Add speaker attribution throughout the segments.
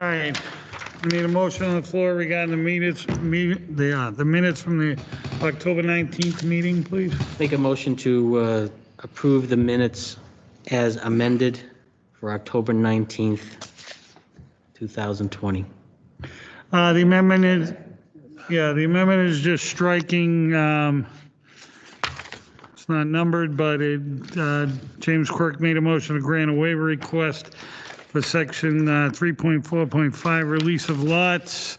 Speaker 1: All right, we need a motion on the floor regarding the minutes, me- the, uh, the minutes from the October 19th meeting, please.
Speaker 2: Make a motion to uh, approve the minutes as amended for October 19th, 2020.
Speaker 1: Uh, the amendment is, yeah, the amendment is just striking, um, it's not numbered, but it, uh, James Quirk made a motion to grant a waiver request for section, uh, 3.4.5, release of lots.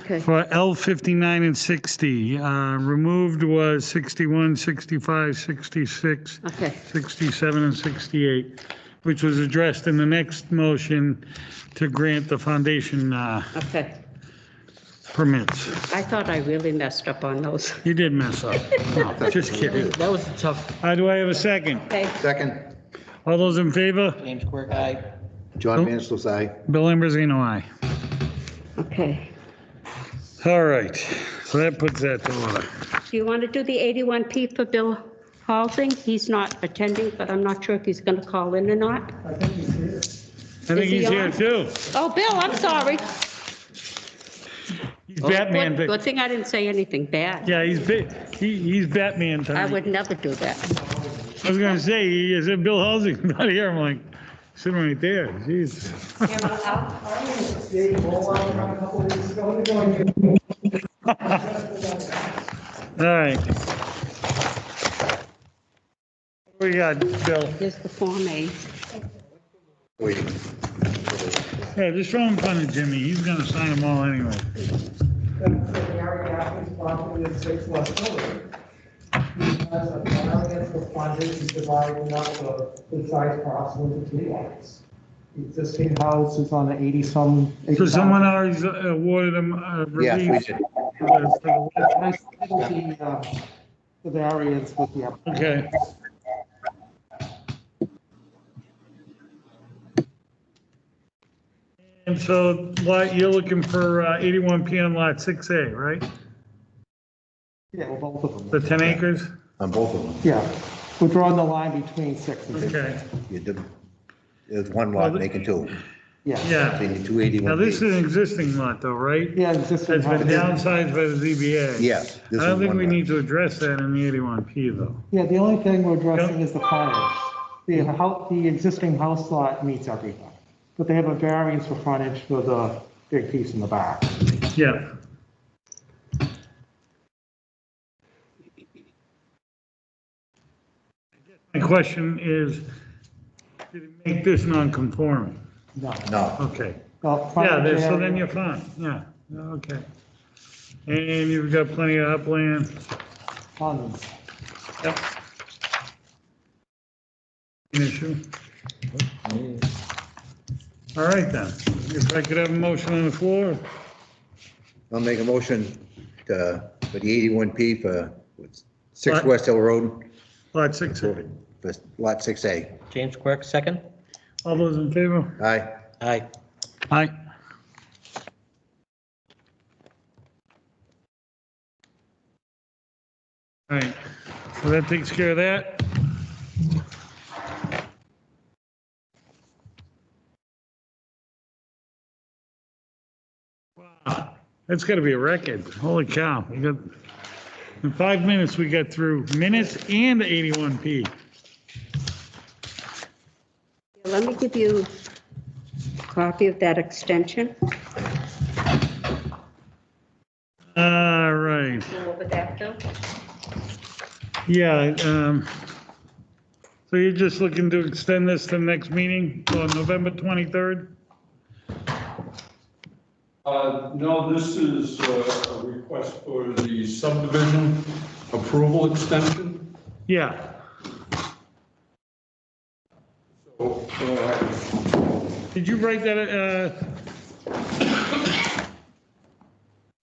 Speaker 3: Okay,
Speaker 1: For L 59 and 60, uh, removed was 61, 65, 66,
Speaker 3: okay,
Speaker 1: 67, and 68, which was addressed in the next motion to grant the foundation uh,
Speaker 3: okay.
Speaker 1: permits.
Speaker 3: I thought I really messed up on those.
Speaker 1: You did mess up. No, Just kidding.
Speaker 2: That was a tough.
Speaker 1: Uh, Do I have a second?
Speaker 3: Okay,
Speaker 4: Second,
Speaker 1: All those in favor?
Speaker 2: James Quirk, aye.
Speaker 4: John Manslow's aye.
Speaker 1: Bill Ambrosino, aye.
Speaker 3: okay.
Speaker 1: All right, so that puts that to order.
Speaker 3: Do you want to do the 81P for Bill Halsing? He's not attending, but I'm not sure if he's going to call in or not.
Speaker 1: I think
Speaker 3: he
Speaker 1: he's here
Speaker 3: on?
Speaker 1: too.
Speaker 3: Oh, Bill, I'm sorry.
Speaker 1: He's Batman.
Speaker 3: Good- Good thing I didn't say anything bad.
Speaker 1: Yeah, he's, Ba- he- he's Batman
Speaker 3: I
Speaker 1: tonight.
Speaker 3: would never do that.
Speaker 1: I was gonna say, is it Bill Halsey's not here? I'm like, sitting right there, jeez. All right. What We got, Bill.
Speaker 3: Here's the Form A.
Speaker 4: Wait,
Speaker 1: Yeah, just throw him fun at Jimmy. He's gonna sign them all anyway.
Speaker 5: Then so we already have this property in six West Miller. Because of variance for frontage, he's dividing up the, the size parcel into two lots. Existing house is on an eighty-some.
Speaker 1: So someone already uh, awarded him a
Speaker 4: yes, we
Speaker 1: relief.
Speaker 4: did.
Speaker 5: I submitted the, uh, the variance with the, app-
Speaker 1: Okay. And so lot, you're looking for uh, 81P on lot 6A, right?
Speaker 5: yeah, well, both of
Speaker 1: The
Speaker 5: them.
Speaker 1: 10 acres?
Speaker 4: On both of them,
Speaker 5: Yeah, we're drawing the line between six and six,
Speaker 1: Okay,
Speaker 4: you did, there's one lot making two,
Speaker 5: yeah.
Speaker 1: yeah.
Speaker 4: between the two eighty-one.
Speaker 1: Now, this is an existing lot though, right?
Speaker 5: Yeah, existing.
Speaker 1: That's been
Speaker 5: house.
Speaker 1: downsized by the ZBA.
Speaker 4: Yes.
Speaker 1: I
Speaker 4: this
Speaker 1: don't
Speaker 4: is
Speaker 1: think
Speaker 4: one
Speaker 1: we
Speaker 4: lot.
Speaker 1: need to address that in the 81P though.
Speaker 5: Yeah, the only thing we're addressing is the frontage. The house, the existing house lot meets everything, but they have a variance for frontage for the big piece in the back.
Speaker 1: Yeah. My question is, did it make this non-conforming?
Speaker 5: No.
Speaker 4: No,
Speaker 1: Okay.
Speaker 5: Well,
Speaker 1: Yeah,
Speaker 5: frontage
Speaker 1: then- so
Speaker 5: area-
Speaker 1: then you're fine, yeah, okay. And you've got plenty of upland.
Speaker 5: Tons.
Speaker 1: Yep. An issue? All right then, if I could have a motion on the floor,
Speaker 4: I'll make a motion to, for the eighty-one P for what's- six
Speaker 1: Lot-
Speaker 4: West Hill Road,
Speaker 1: lot six,
Speaker 4: for lot six A.
Speaker 2: James Quirk, second.
Speaker 1: all those in favor?
Speaker 4: Aye,
Speaker 2: Aye.
Speaker 1: Aye. All right, so that takes care of that. Wow, That's gotta be a record. Holy cow, we got, in five minutes, we got through minutes and 81P.
Speaker 3: Let me give you a copy of that extension.
Speaker 1: All right.
Speaker 3: Go over that, Bill.
Speaker 1: Yeah, um, so you're just looking to extend this to the next meeting on November 23rd?
Speaker 6: Uh, No, this is uh, a request for the subdivision approval extension.
Speaker 1: Yeah,
Speaker 6: So, uh,
Speaker 1: did you write that, uh,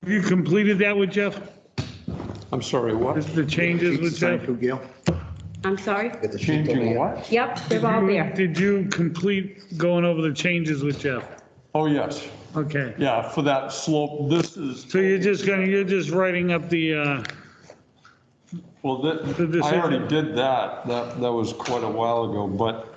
Speaker 1: have you completed that with Jeff?
Speaker 6: I'm sorry, what?
Speaker 1: Just The changes with Jeff?
Speaker 4: Sign two, Gail?
Speaker 3: I'm sorry?
Speaker 4: Get the sheet over
Speaker 6: Changing
Speaker 4: here.
Speaker 6: what?
Speaker 3: Yep, they're all there.
Speaker 1: Did you complete going over the changes with Jeff?
Speaker 6: Oh, yes,
Speaker 1: Okay,
Speaker 6: yeah, for that slope, this is,
Speaker 1: so you're just gonna, you're just writing up the, uh,
Speaker 6: well,
Speaker 1: The
Speaker 6: that,
Speaker 1: decision.
Speaker 6: I already did that, that, that was quite a while ago, but uh,